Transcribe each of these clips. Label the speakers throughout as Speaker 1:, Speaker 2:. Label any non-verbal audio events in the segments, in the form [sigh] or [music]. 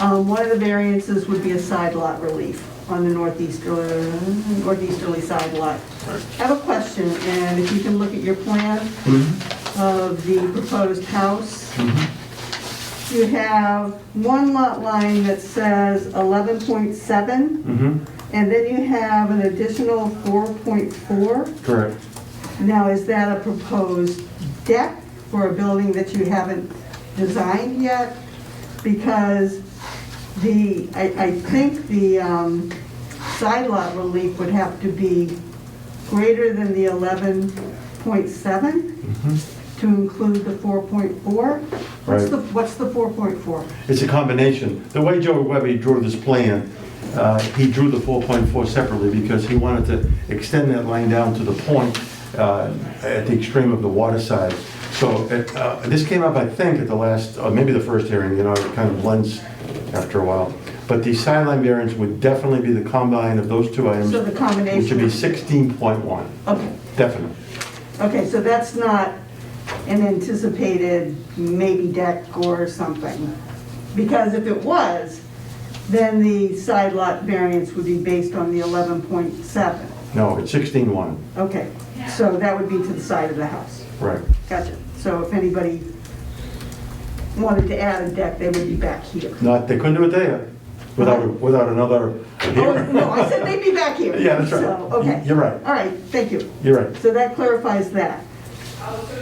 Speaker 1: Um, One of the variances would be a side lot relief on the northeasterly, northeasterly side lot. I have a question, and if you can look at your plan
Speaker 2: Mm-hmm.
Speaker 1: of the proposed house. You have one lot line that says 11.7,
Speaker 2: Mm-hmm,
Speaker 1: and then you have an additional 4.4.
Speaker 2: correct.
Speaker 1: Now, is that a proposed deck for a building that you haven't designed yet? Because the, I, I think the um, side lot relief would have to be greater than the 11.7 to include the 4.4? What's
Speaker 2: Right.
Speaker 1: the, what's the 4.4?
Speaker 2: It's a combination. The way Joe Webby drew this plan, uh, he drew the 4.4 separately because he wanted to extend that line down to the point uh, at the extreme of the water side. So it, uh, this came up, I think, at the last, uh, maybe the first hearing, you know, it kind of blends after a while. But the sideline variance would definitely be the combine of those two items.
Speaker 1: So the combination-
Speaker 2: Which would be 16.1,
Speaker 1: Okay,
Speaker 2: definitely.
Speaker 1: okay, so that's not an anticipated maybe deck or something? Because if it was, then the side lot variance would be based on the 11.7.
Speaker 2: No, it's 16.1,
Speaker 1: Okay, so that would be to the side of the house.
Speaker 2: right.
Speaker 1: Gotcha. So if anybody wanted to add a deck, they would be back here.
Speaker 2: Not, they couldn't do it there without, without another
Speaker 1: Oh,
Speaker 2: hearing.
Speaker 1: no, I said they'd be back here.
Speaker 2: [laughs] Yeah, that's right.
Speaker 1: So, okay.
Speaker 2: You- you're right.
Speaker 1: All right, thank you.
Speaker 2: You're right.
Speaker 1: So that clarifies that.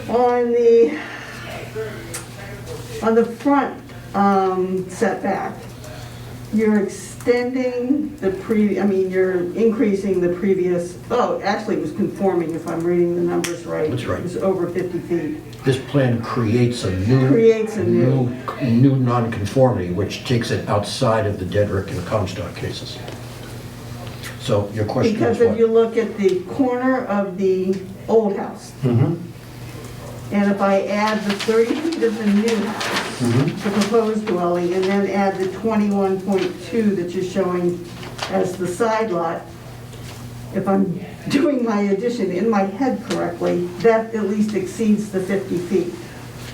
Speaker 1: On the, on the front um, setback, you're extending the pre, I mean, you're increasing the previous, oh, actually it was conforming if I'm reading the numbers right.
Speaker 3: That's right.
Speaker 1: It was over 50 feet.
Speaker 3: This plan creates a new.
Speaker 1: Creates a new-
Speaker 3: New nonconformity, which takes it outside of the Dedrick and Comstock cases. So your question is
Speaker 1: Because if you
Speaker 3: what?
Speaker 1: look at the corner of the old house,
Speaker 2: Mhm.
Speaker 1: and if I add the 30 feet of the new house, the proposed dwelling, and then add the 21.2 that you're showing as the side lot, if I'm [laughs] doing my addition in my head correctly, that at least exceeds the 50 feet.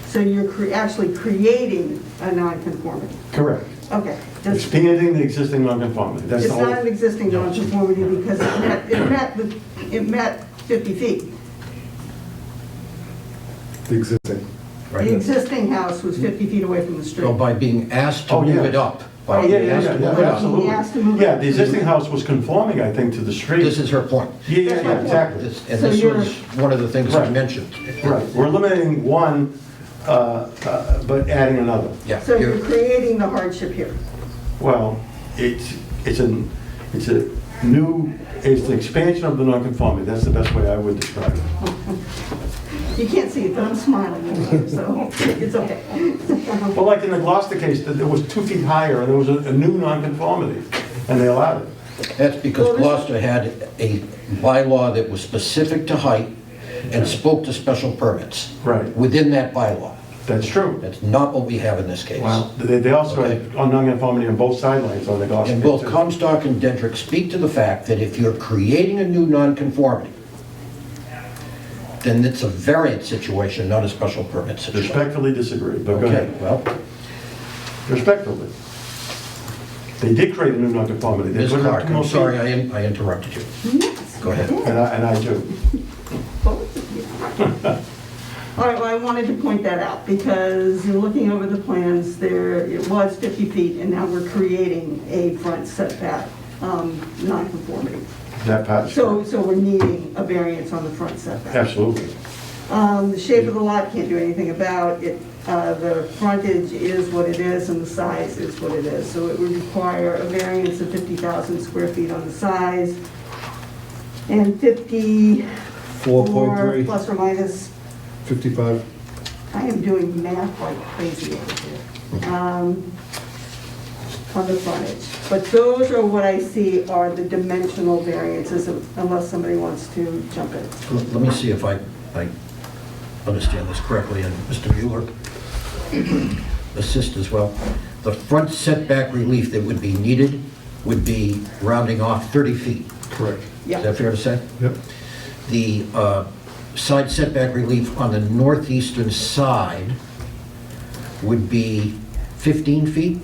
Speaker 1: So you're cre- actually creating a nonconformity.
Speaker 2: Correct.
Speaker 1: Okay, just
Speaker 2: Expanding the existing nonconformity. That's
Speaker 1: it's
Speaker 2: the whole.
Speaker 1: not an existing nonconformity because it met, it met, the- it met 50 feet.
Speaker 4: The existing.
Speaker 1: The
Speaker 3: right?
Speaker 1: existing house was 50 feet away from the street.
Speaker 3: So by being asked to
Speaker 2: Oh, yeah.
Speaker 3: move it up.
Speaker 2: Oh,
Speaker 3: by
Speaker 2: yeah,
Speaker 3: being
Speaker 2: yeah,
Speaker 3: asked to
Speaker 2: yeah,
Speaker 3: move
Speaker 2: yeah,
Speaker 3: it up,
Speaker 2: absolutely.
Speaker 1: He asked to move it.
Speaker 2: Yeah, the existing house was conforming, I think, to the street.
Speaker 3: This is her point.
Speaker 2: Yeah, yeah, yeah, exactly.
Speaker 3: This- And
Speaker 1: So
Speaker 3: this
Speaker 1: you're-
Speaker 3: was one of the things I
Speaker 2: Right.
Speaker 3: mentioned.
Speaker 2: Right, we're eliminating one, uh, uh, but adding another.
Speaker 3: Yeah.
Speaker 1: So
Speaker 3: you're-
Speaker 1: you're creating the hardship here.
Speaker 2: Well, it's, it's an, it's a new, it's an expansion of the nonconformity. That's the best way I would describe it.
Speaker 1: You can't see it, but I'm smiling, so it's okay.
Speaker 2: Well, like in the Gloucester case, that it was two feet higher and there was a a new nonconformity and they allowed it.
Speaker 3: That's
Speaker 1: Well,
Speaker 3: because
Speaker 1: this-
Speaker 3: Gloucester had a bylaw that was specific to height and spoke to special permits.
Speaker 2: Right.
Speaker 3: Within that bylaw.
Speaker 2: That's true.
Speaker 3: That's not what we have in this case.
Speaker 2: Well, they, they also had
Speaker 3: Okay.
Speaker 2: on nonconformity on both sidelines on the Gloucester.
Speaker 3: And
Speaker 2: case,
Speaker 3: both
Speaker 2: too.
Speaker 3: Comstock and Dedrick speak to the fact that if you're creating a new nonconformity, then it's a variant situation, not a special permit situation.
Speaker 2: Respectfully disagree, but go
Speaker 3: Okay,
Speaker 2: ahead.
Speaker 3: well,
Speaker 2: Respectfully. They did create a new nonconformity. They
Speaker 3: Ms.
Speaker 2: put it up
Speaker 3: Clark,
Speaker 2: to no
Speaker 3: I'm sorry
Speaker 2: feet.
Speaker 3: I in- I interrupted you. Go ahead.
Speaker 2: And I, and I do.
Speaker 1: Both of you. All right, well, I wanted to point that out because in looking over the plans, there, it was 50 feet and now we're creating a front setback um, nonconformity.
Speaker 2: That part. is
Speaker 1: So,
Speaker 2: correct.
Speaker 1: so we're needing a variance on the front setback.
Speaker 2: Absolutely.
Speaker 1: Um, The shape of the lot, can't do anything about it. Uh, The frontage is what it is and the size is what it is. So it would require a variance of 50,000 square feet on the size and 54
Speaker 4: 4.3,
Speaker 1: plus or minus,
Speaker 4: 55.
Speaker 1: I am doing math like crazy over here, um, on the frontage. But those are what I see are the dimensional variances unless somebody wants to jump in.
Speaker 3: L- Let me see if I, I understand this correctly, and Mr. Mueller, [clears throat] assist as well. The front setback relief that would be needed would be rounding off 30 feet.
Speaker 4: Correct.
Speaker 1: Yeah.
Speaker 3: Is that fair to say?
Speaker 4: Yep.
Speaker 3: The uh, side setback relief on the northeastern side would be 15 feet?